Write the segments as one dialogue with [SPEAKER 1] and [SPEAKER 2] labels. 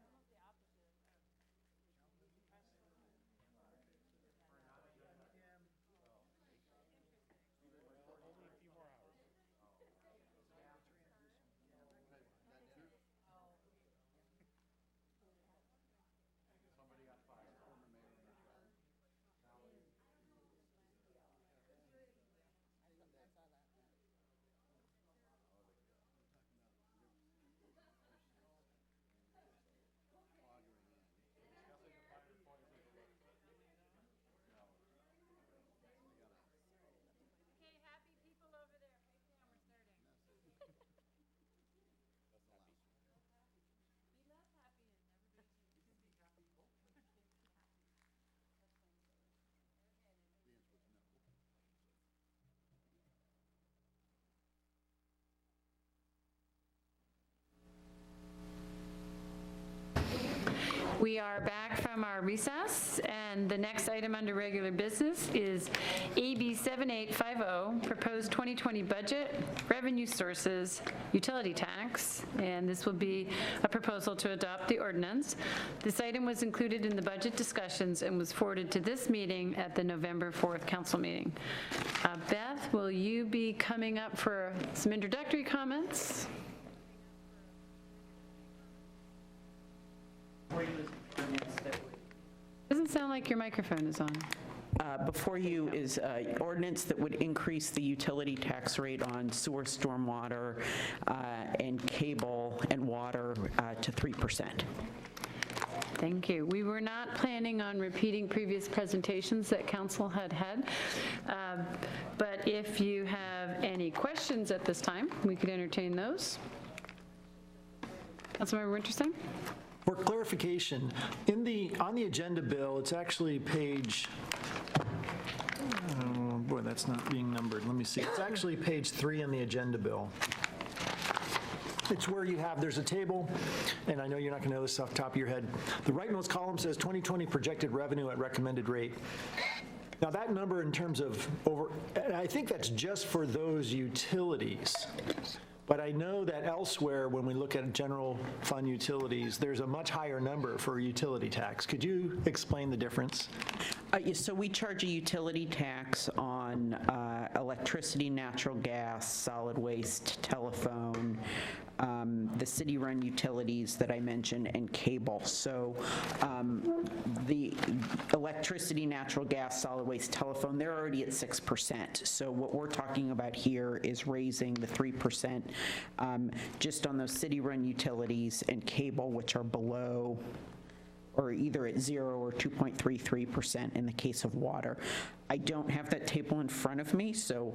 [SPEAKER 1] uh, uh,
[SPEAKER 2] We are back from our recess, and the next item under regular business is AB 7850, proposed 2020 budget, revenue sources, utility tax, and this will be a proposal to adopt the ordinance. This item was included in the budget discussions and was forwarded to this meeting at the November 4th council meeting. Uh, Beth, will you be coming up for some introductory comments? Doesn't sound like your microphone is on.
[SPEAKER 3] Uh, Before you is uh, ordinance that would increase the utility tax rate on sewer, stormwater, uh, and cable and water uh, to 3%.
[SPEAKER 2] Thank you. We were not planning on repeating previous presentations that council had had, um, but if you have any questions at this time, we could entertain those. Councilmember Winterstein?
[SPEAKER 1] For clarification, in the, on the agenda bill, it's actually page, oh, boy, that's not being numbered, let me see. It's actually page three in the agenda bill. It's where you have, there's a table, and I know you're not going to know this off the top of your head. The rightmost column says 2020 projected revenue at recommended rate. Now, that number in terms of over, and I think that's just for those utilities. But I know that elsewhere, when we look at general fund utilities, there's a much higher number for utility tax. Could you explain the difference?
[SPEAKER 3] Uh, yeah, So we charge a utility tax on uh, electricity, natural gas, solid waste, telephone, um, the city-run utilities that I mentioned, and cable. So um, the electricity, natural gas, solid waste, telephone, they're already at 6%. So what we're talking about here is raising the 3% um, just on those city-run utilities and cable, which are below or either at zero or 2.33% in the case of water. I don't have that table in front of me, so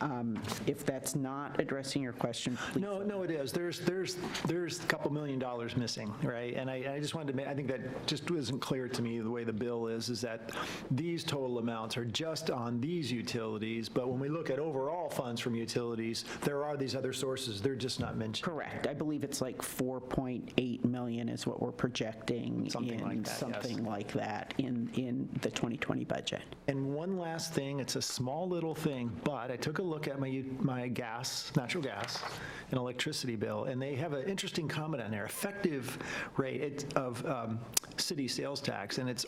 [SPEAKER 3] um, if that's not addressing your question, please.
[SPEAKER 1] No, no, it is. There's, there's, there's a couple million dollars missing, right? And I, I just wanted to, ma- I think that just wasn't clear to me, the way the bill is, is that these total amounts are just on these utilities, but when we look at overall funds from utilities, there are these other sources, they're just not mentioned.
[SPEAKER 3] Correct. I believe it's like 4.8 million is what we're projecting.
[SPEAKER 1] Something like
[SPEAKER 3] in
[SPEAKER 1] that, yes.
[SPEAKER 3] Something like that in, in the 2020 budget.
[SPEAKER 1] And one last thing, it's a small little thing, but I took a look at my, my gas, natural gas and electricity bill, and they have an interesting comment on there, effective rate it's- of um, city sales tax, and it's